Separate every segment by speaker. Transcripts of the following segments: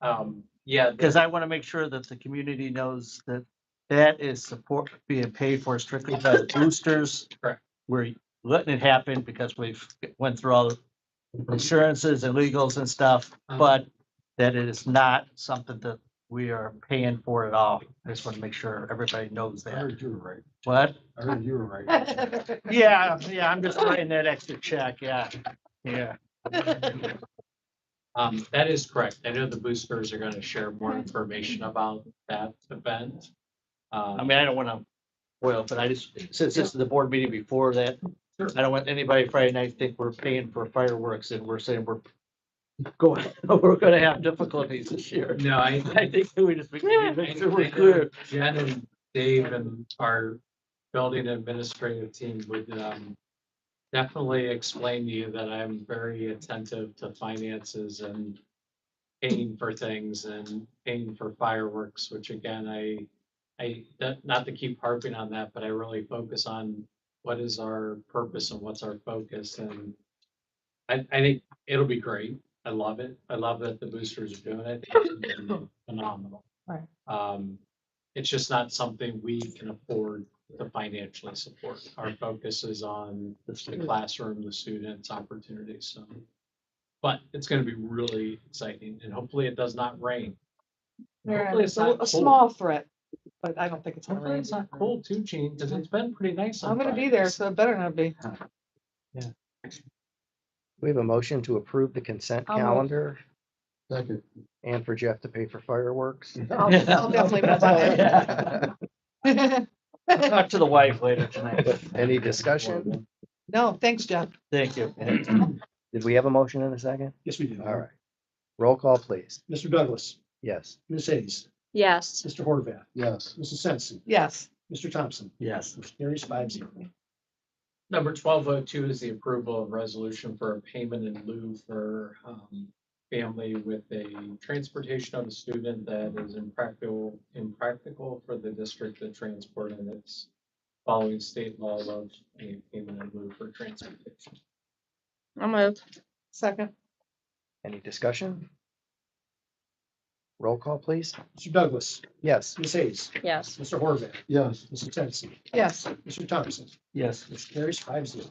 Speaker 1: Um, yeah,
Speaker 2: Because I want to make sure that the community knows that that is support being paid for strictly by the boosters.
Speaker 1: Correct.
Speaker 2: We're letting it happen because we've went through all the insurances and legals and stuff,
Speaker 1: Uh-huh.
Speaker 2: but that it is not something that we are paying for at all. I just want to make sure everybody knows
Speaker 3: I
Speaker 2: that.
Speaker 3: heard you were right.
Speaker 2: What?
Speaker 3: I heard you were right.
Speaker 2: Yeah, yeah, I'm just writing that extra check, yeah, yeah.
Speaker 1: um, that is correct. I know the boosters are gonna share more information about that event.
Speaker 2: I
Speaker 1: Um,
Speaker 2: mean, I don't want to, well, but I just, since this is the board meeting before that,
Speaker 1: Sure.
Speaker 2: I don't want anybody Friday night to think we're paying for fireworks and we're saying we're going, we're gonna have difficulties this year.
Speaker 1: no, I,
Speaker 2: I think that we just, we need to make sure we're
Speaker 1: Yeah.
Speaker 2: clear.
Speaker 1: Jen and Dave and our building administrative team would um. Definitely explain to you that I'm very attentive to finances and paying for things and paying for fireworks, which again, I. I, not- not to keep harping on that, but I really focus on what is our purpose and what's our focus and. I I think it'll be great. I love it. I love that the boosters are doing it. It's Phenomenal.
Speaker 4: Right.
Speaker 1: Um, it's just not something we can afford to financially support. Our focus is on the classroom, the students, opportunities, so. But it's gonna be really exciting and hopefully it does not rain.
Speaker 4: Yeah,
Speaker 1: Hopefully it's
Speaker 4: it's a
Speaker 1: not
Speaker 4: a
Speaker 1: cold.
Speaker 4: small threat, but I don't think it's. gonna
Speaker 1: Hopefully
Speaker 4: rain.
Speaker 1: it's not cold too, Gene, because it's been pretty nice. on
Speaker 4: I'm gonna be there,
Speaker 1: Fridays.
Speaker 4: so it better not be.
Speaker 5: We have a motion to approve the consent
Speaker 4: I'll move.
Speaker 5: calendar
Speaker 3: Second.
Speaker 5: and for Jeff to pay for fireworks.
Speaker 4: I'll I'll definitely vote
Speaker 5: Any
Speaker 4: for it.
Speaker 2: Talk to the wife later tonight.
Speaker 5: discussion?
Speaker 4: No, thanks, Jeff.
Speaker 2: Thank you.
Speaker 5: Did we have a motion in a second?
Speaker 3: Yes, we do.
Speaker 5: All right. Roll call, please.
Speaker 3: Mr. Douglas,
Speaker 5: Yes.
Speaker 3: Ms. Hayes,
Speaker 6: Yes,
Speaker 3: Mr. Horvath,
Speaker 5: Yes.
Speaker 3: Mrs. Sensi,
Speaker 4: Yes,
Speaker 3: Mr. Thompson,
Speaker 2: Yes,
Speaker 3: motion carries five zero.
Speaker 1: Number twelve oh two is the approval of resolution for a payment in lieu for um family with a transportation of a student that is impractical, impractical for the district to transport and it's following state law of a payment in lieu for transportation.
Speaker 6: I'll move.
Speaker 4: second,
Speaker 5: Any discussion? Roll call, please.
Speaker 3: Mr. Douglas,
Speaker 5: Yes.
Speaker 3: Ms. Hayes,
Speaker 6: Yes,
Speaker 3: Mr. Horvath,
Speaker 5: Yes.
Speaker 3: Mrs. Sensi,
Speaker 4: yes,
Speaker 3: Mr. Thompson,
Speaker 2: yes.
Speaker 3: motion carries five zero.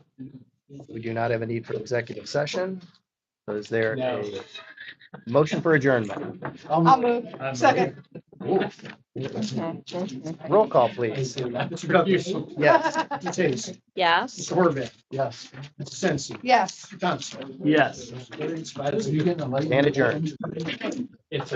Speaker 5: We do not have a need for executive session. So is there
Speaker 1: No.
Speaker 5: a motion for adjournment?
Speaker 4: I'll move, second,
Speaker 5: Roll call,
Speaker 1: I
Speaker 5: please.
Speaker 1: see that.
Speaker 3: Mr. Douglas,
Speaker 5: Yes.
Speaker 3: Ms. Hayes,
Speaker 6: yes.
Speaker 3: Mr. Horvath,
Speaker 5: Yes.
Speaker 3: Mrs. Sensi,
Speaker 4: yes.
Speaker 3: Mr. Thompson.
Speaker 2: Yes.
Speaker 3: Motion carries five zero.
Speaker 5: And adjourned.